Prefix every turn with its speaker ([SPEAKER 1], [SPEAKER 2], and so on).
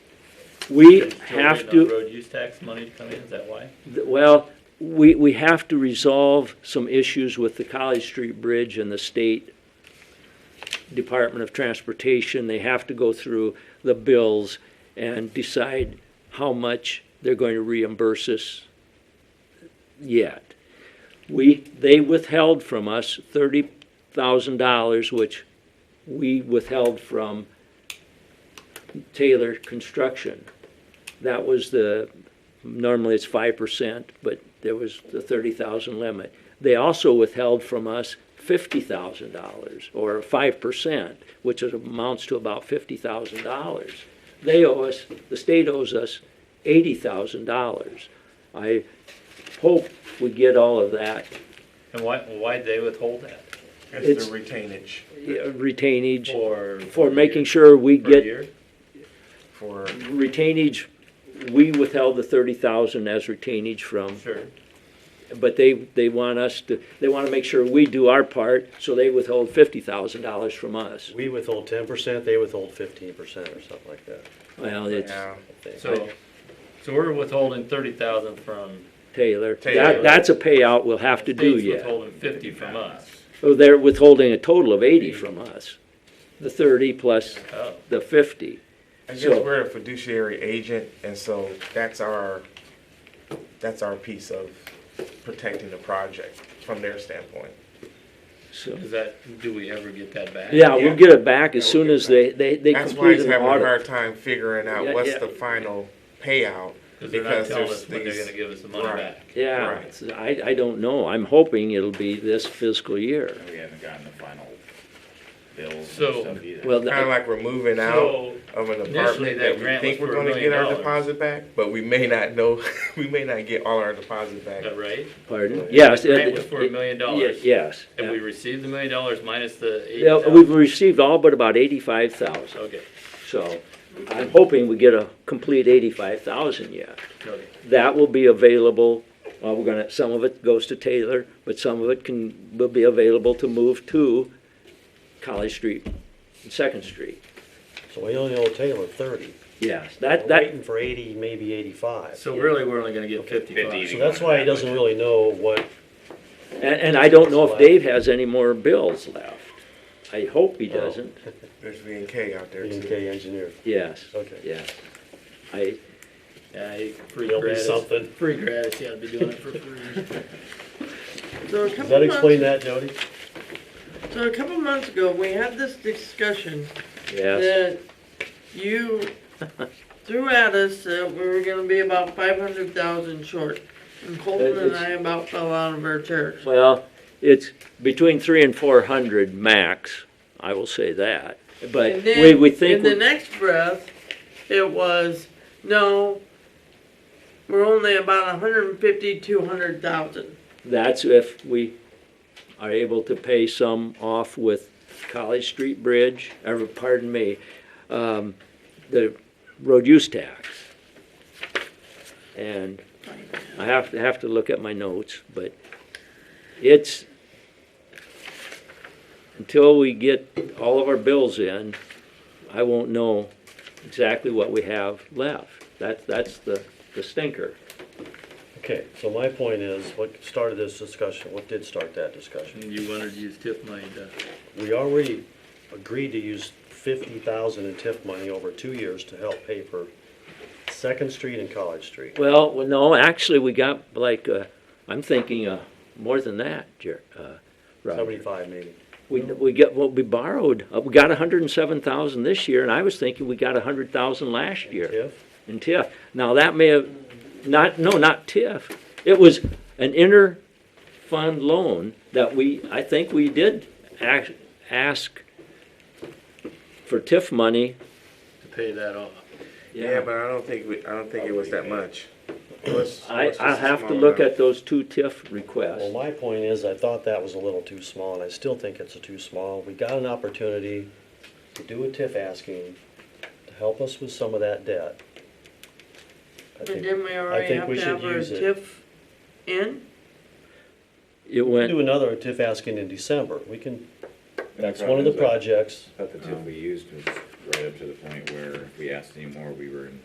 [SPEAKER 1] We
[SPEAKER 2] Still
[SPEAKER 1] have
[SPEAKER 2] waiting on
[SPEAKER 1] to,
[SPEAKER 2] Road use tax money to come in, is that why?
[SPEAKER 1] well, we, we have to resolve some issues with the College Street Bridge and the state Department of Transportation. They have to go through the bills and decide how much they're going to reimburse us yet. We, they withheld from us thirty thousand dollars, which we withheld from Taylor Construction. That was the, normally it's five percent, but there was the thirty thousand limit. They also withheld from us fifty thousand dollars, or five percent, which is- amounts to about fifty thousand dollars. They owe us, the state owes us eighty thousand dollars. I hope we get all of that
[SPEAKER 2] And why, why'd they withhold that?
[SPEAKER 1] It's-
[SPEAKER 3] It's the retainage
[SPEAKER 1] uh, retainage,
[SPEAKER 2] For?
[SPEAKER 1] for making sure we
[SPEAKER 2] For a
[SPEAKER 1] get
[SPEAKER 2] year?
[SPEAKER 3] for,
[SPEAKER 1] retainage, we withheld the thirty thousand as retainage from
[SPEAKER 2] Sure.
[SPEAKER 1] but they, they want us to, they want to make sure we do our part, so they withhold fifty thousand dollars from us.
[SPEAKER 4] We withhold ten percent, they withhold fifteen percent or something like that.
[SPEAKER 1] Well, it's
[SPEAKER 3] yeah,
[SPEAKER 4] I think.
[SPEAKER 2] So, so we're withholding thirty thousand from.
[SPEAKER 1] Taylor.
[SPEAKER 3] Taylor.
[SPEAKER 1] That, that's a payout we'll have to do
[SPEAKER 2] state's
[SPEAKER 1] yet.
[SPEAKER 2] Withholding fifty from us.
[SPEAKER 1] Oh, They're withholding a total of eighty from us, the thirty plus
[SPEAKER 2] Oh,
[SPEAKER 1] the fifty.
[SPEAKER 3] I guess
[SPEAKER 1] So-
[SPEAKER 3] we're a fiduciary agent, and so that's our, that's our piece of protecting the project from their standpoint.
[SPEAKER 1] So,
[SPEAKER 2] is that, do we ever get that back?
[SPEAKER 1] yeah, we'll get it back as
[SPEAKER 3] Yeah,
[SPEAKER 1] soon
[SPEAKER 3] we'll
[SPEAKER 1] as
[SPEAKER 3] get
[SPEAKER 1] they, they, they
[SPEAKER 3] That's why
[SPEAKER 1] complete
[SPEAKER 3] he's
[SPEAKER 1] an
[SPEAKER 3] having a
[SPEAKER 1] audit.
[SPEAKER 3] hard time figuring
[SPEAKER 1] Yeah,
[SPEAKER 3] out what's
[SPEAKER 1] yeah.
[SPEAKER 3] the final payout.
[SPEAKER 2] Cause they're not
[SPEAKER 3] because
[SPEAKER 2] telling
[SPEAKER 3] there's
[SPEAKER 2] us when they're
[SPEAKER 3] these-
[SPEAKER 2] gonna give us the money
[SPEAKER 3] Right.
[SPEAKER 2] back.
[SPEAKER 1] Yeah,
[SPEAKER 3] Right.
[SPEAKER 1] so I, I don't know. I'm hoping it'll be this fiscal year.
[SPEAKER 5] We haven't gotten the final bills and
[SPEAKER 2] So-
[SPEAKER 5] stuff either.
[SPEAKER 1] Well,
[SPEAKER 3] Kinda like we're moving out
[SPEAKER 2] So,
[SPEAKER 3] of an
[SPEAKER 2] initially
[SPEAKER 3] apartment
[SPEAKER 2] that
[SPEAKER 3] that we
[SPEAKER 2] grant was
[SPEAKER 3] think
[SPEAKER 2] for
[SPEAKER 3] we're
[SPEAKER 2] a
[SPEAKER 3] gonna
[SPEAKER 2] million
[SPEAKER 3] get our
[SPEAKER 2] dollars.
[SPEAKER 3] deposit back, but we may not know, we may not get all our deposit
[SPEAKER 2] is
[SPEAKER 3] back.
[SPEAKER 2] that right?
[SPEAKER 1] pardon, yes.
[SPEAKER 2] The Grant
[SPEAKER 1] it-
[SPEAKER 2] was for a million
[SPEAKER 1] Ye-
[SPEAKER 2] dollars.
[SPEAKER 1] Yes.
[SPEAKER 2] Have we received the million dollars minus the eighty
[SPEAKER 1] Yeah,
[SPEAKER 2] thousand?
[SPEAKER 1] we've received all but about eighty-five thousand,
[SPEAKER 2] Okay,
[SPEAKER 1] so I'm hoping we get a complete eighty-five thousand yet.
[SPEAKER 2] okay.
[SPEAKER 1] That will be available, well, we're gonna, some of it goes to Taylor, but some of it can, will be available to move to College Street and Second Street.
[SPEAKER 4] So we only owe Taylor thirty.
[SPEAKER 1] Yes,
[SPEAKER 4] We're
[SPEAKER 1] that, that,
[SPEAKER 4] waiting for eighty, maybe eighty-five.
[SPEAKER 2] So really, we're only gonna get fifty-five.
[SPEAKER 5] Fifty.
[SPEAKER 4] So that's why he doesn't really know what,
[SPEAKER 1] and, and I don't know if Dave has any more bills left. I hope he doesn't,
[SPEAKER 3] There's V and K out there too.
[SPEAKER 4] okay, engineer,
[SPEAKER 1] yes,
[SPEAKER 4] Okay.
[SPEAKER 1] yes. I,
[SPEAKER 2] Yeah, he- free
[SPEAKER 4] there'll be
[SPEAKER 2] gratis.
[SPEAKER 4] something.
[SPEAKER 2] Free gratis, yeah, I'd be doing it for free.
[SPEAKER 6] So a couple
[SPEAKER 4] Does that
[SPEAKER 6] months,
[SPEAKER 4] explain that, Jody?
[SPEAKER 6] So a couple months ago, we had this discussion
[SPEAKER 1] yes,
[SPEAKER 6] that you threw at us that we were going to be about five hundred thousand short, and Colton and
[SPEAKER 1] It's-
[SPEAKER 6] I about fell out of our chairs.
[SPEAKER 1] well, it's between three and four hundred max, I will say that, but
[SPEAKER 6] And then
[SPEAKER 1] we, we think.
[SPEAKER 6] in
[SPEAKER 1] we-
[SPEAKER 6] the next breath, it was no. We're only about a hundred and fifty, two hundred thousand.
[SPEAKER 1] That's if we are able to pay some off with College Street Bridge, or pardon me, um, the road use tax. And I have to, have to look at my notes, but it's, until we get all of our bills in, I won't know exactly what we have left. That, that's the, the stinker.
[SPEAKER 4] Okay, so my point is, what started this discussion, what did start that discussion?
[SPEAKER 2] You wanted to use tip money to.
[SPEAKER 4] We already agreed to use fifty thousand in TIF money over two years to help pay for Second Street and College Street.
[SPEAKER 1] Well, well, no, actually, we got like, uh, I'm thinking, uh, more than that, Jer, uh, Robert.
[SPEAKER 4] Seventy-five maybe.
[SPEAKER 1] We, we got, well, we borrowed, uh, we got a hundred and seven thousand this year, and I was thinking we got a hundred thousand last year
[SPEAKER 4] TIF?
[SPEAKER 1] in TIF. Now, that may have, not, no, not TIF. It was an inter-fund loan that we, I think we did ask, ask for TIF money.
[SPEAKER 2] pay that off.
[SPEAKER 3] Yeah, but I don't think, we. I don't think it was that much. It was- it
[SPEAKER 1] I,
[SPEAKER 3] was just
[SPEAKER 1] I
[SPEAKER 3] a
[SPEAKER 1] have to
[SPEAKER 3] small
[SPEAKER 1] look
[SPEAKER 3] amount.
[SPEAKER 1] at those two TIF requests.
[SPEAKER 4] Well, my point is, I thought that was a little too small, and I still think it's a too small. We got an opportunity to do a TIF asking to help us with some of that debt. I
[SPEAKER 6] But
[SPEAKER 4] think
[SPEAKER 6] didn't we
[SPEAKER 4] I
[SPEAKER 6] already
[SPEAKER 4] think
[SPEAKER 6] have
[SPEAKER 4] we
[SPEAKER 6] to
[SPEAKER 4] should
[SPEAKER 6] have our
[SPEAKER 4] use it.
[SPEAKER 6] TIF in?
[SPEAKER 1] It
[SPEAKER 4] we can
[SPEAKER 1] went,
[SPEAKER 4] do another TIF asking in December. We can,
[SPEAKER 5] That's
[SPEAKER 4] it's one of the projects.
[SPEAKER 5] But the tip we used was right up to the point where if we asked anymore, we were in